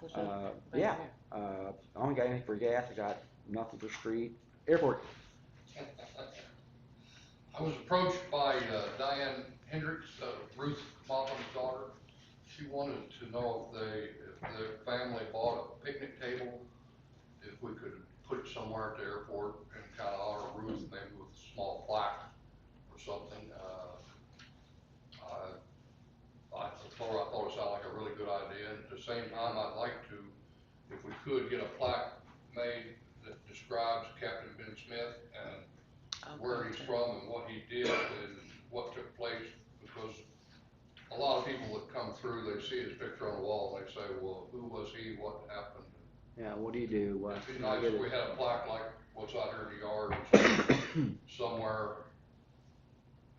Push it Uh, right yeah, there. uh, I only got anything for gas, I got nothing for street, airport, I was approached by uh, Diane Hendricks, uh, Ruth Moffin's daughter. She wanted to know if they, if their family bought a picnic table, if we could put it somewhere at the airport and kind of honor Ruth, maybe with a small plaque or something. Uh, I, I thought, I thought it sounded like a really good idea, and at the same time, I'd like to, if we could, get a plaque made that describes Captain Ben Smith and Oh, where he's okay. from and what he did and what took place, because a lot of people that come through, they see his picture on the wall, and they say, well, who was he, what happened? yeah, what do you do, what, It'd be I nice get if we it, had a plaque like what's out here in the yard, or something, somewhere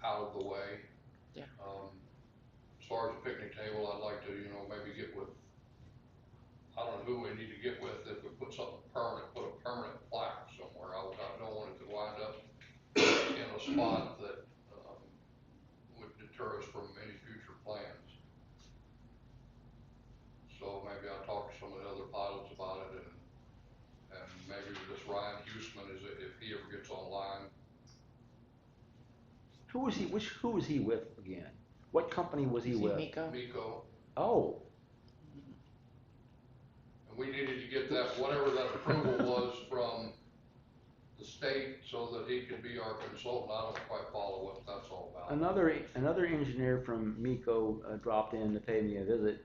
out of the way. Yeah. Um, as far as the picnic table, I'd like to, you know, maybe get with, I don't know who we need to get with, if we put something permanent, put a permanent plaque somewhere, I would, I don't want it to wind up in a spot that, um, would deter us from any future plans. So maybe I'll talk to some of the other pilots about it and and maybe this Ryan Huseman is, if he ever gets online, who was he, which, who was he with again? What company was he See with? Miko? Miko, Oh, and we needed to get that, whatever that approval was from the state so that he could be our consultant. I don't quite follow what that's all about. another, another engineer from Miko uh, dropped in to pay me a visit,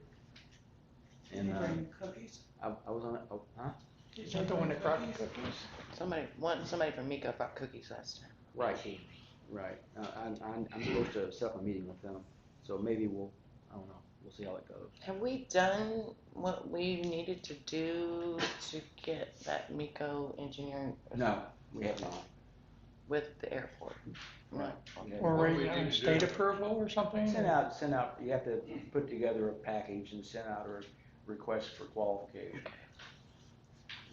Did you and, um, bring cookies? I, I was on, a- oh, huh? Did Is you that the bring one that brought the cookies? cookies? Somebody, one, somebody from Miko bought cookies last time. Right. She- Right, uh, I'm, I'm, I'm supposed to set up a meeting with them, so maybe we'll, I don't know, we'll see how it goes. Have we done what we needed to do to get that Miko engineering? No, we have not. With the airport? No. Yeah. Or What do we waiting need on to state do? approval or something? Send out, send out, you have to put together a package and send out a request for qualification.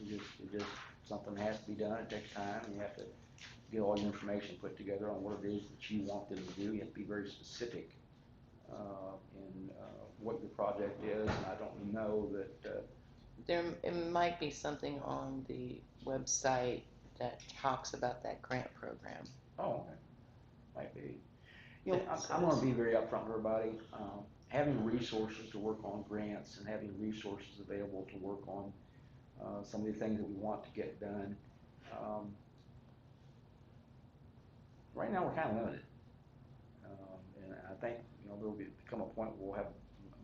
It just, it just, something has to be done, it takes time, you have to get all your information put together on what it is that you want them to do, you have to be very specific, uh, in, uh, what your project is, and I don't know that, uh, There, it might be something on the website that talks about that grant program. Oh, okay. Might be. You know, I'm, I'm gonna be very upfront with everybody, um, having resources to work on grants and having resources available to work on, uh, some of the things that we want to get done, um, right now, we're kinda limited. Um, and I think, you know, there'll be, come a point where we'll have m-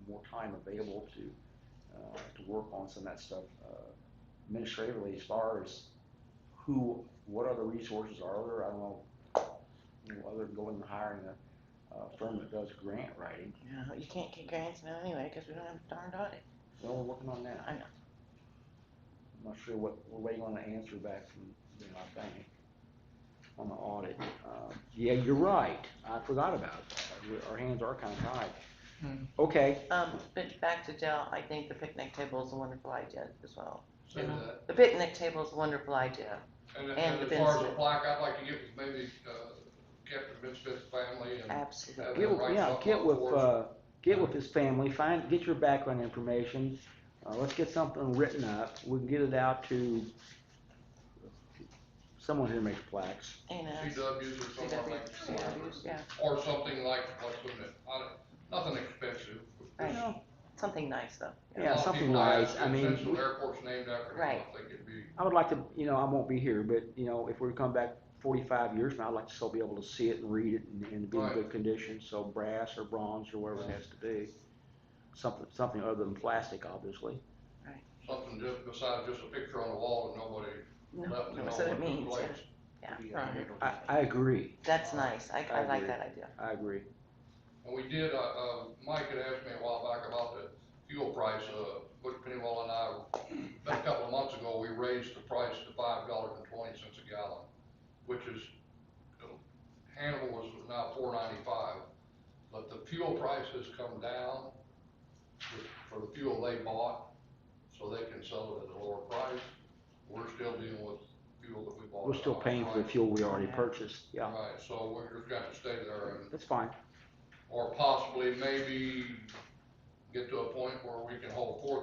more time available to, uh, to work on some of that stuff, uh, administratively as far as who, what other resources are there, I don't know, you know, other than going and hiring a, a firm that does grant writing, No, you can't get grants now anyway, cause we don't have a darned audit. well, we're working on that. I know. I'm not sure what, we're waiting on an answer back from, you know, I think, on the audit. Uh, Yeah, you're right, I forgot about that, We- our hands are kinda tied. Hmm. Okay, Um, but back to Dell, I think the picnic table is a wonderful idea as well. Say that. The picnic table is a wonderful idea. And, And and the as Ben far as the Smith. plaque, I'd like to get with maybe, uh, Captain Ben Smith's family and Absolutely. get, with- Right, yeah, something get on with, force. uh, get with his family, find, get your background information, uh, let's get something written up, we can get it out to someone who makes plaques. And, uh, CWs or something like CWs, that. yeah, Or something like, what's in it, I don't- nothing expensive. You Right. know, something nice though. A Yeah, lot of something people ask nice. I if mean, Central Airport's named after him, I Right. think it'd be. I would like to, you know, I won't be here, but, you know, if we come back forty-five years from now, I'd like to still be able to see it and read it and, and be in Right. good condition, so brass or bronze or whatever it has to be. Something, something other than plastic, obviously. something just besides just a picture on the wall and nobody No, left to know no, what so it took means, yeah. place. Right. I, I agree, That's nice. I, I like agree. that idea. I agree. And we did, uh, uh, Mike had asked me a while back about the fuel price, uh, Butch Pennywell and I, about a couple of months ago, we raised the price to five dollars and twenty cents a gallon, which is, you know, Hannibal was now four ninety-five, but the fuel price has come down with- for the fuel they bought, so they can sell it at a lower price. We're still dealing with fuel that we bought. We're still at a higher paying for the price. fuel we already Yeah. purchased, yeah. Right, so we're just gonna stay there and That's fine. or possibly maybe get to a point where we can hold four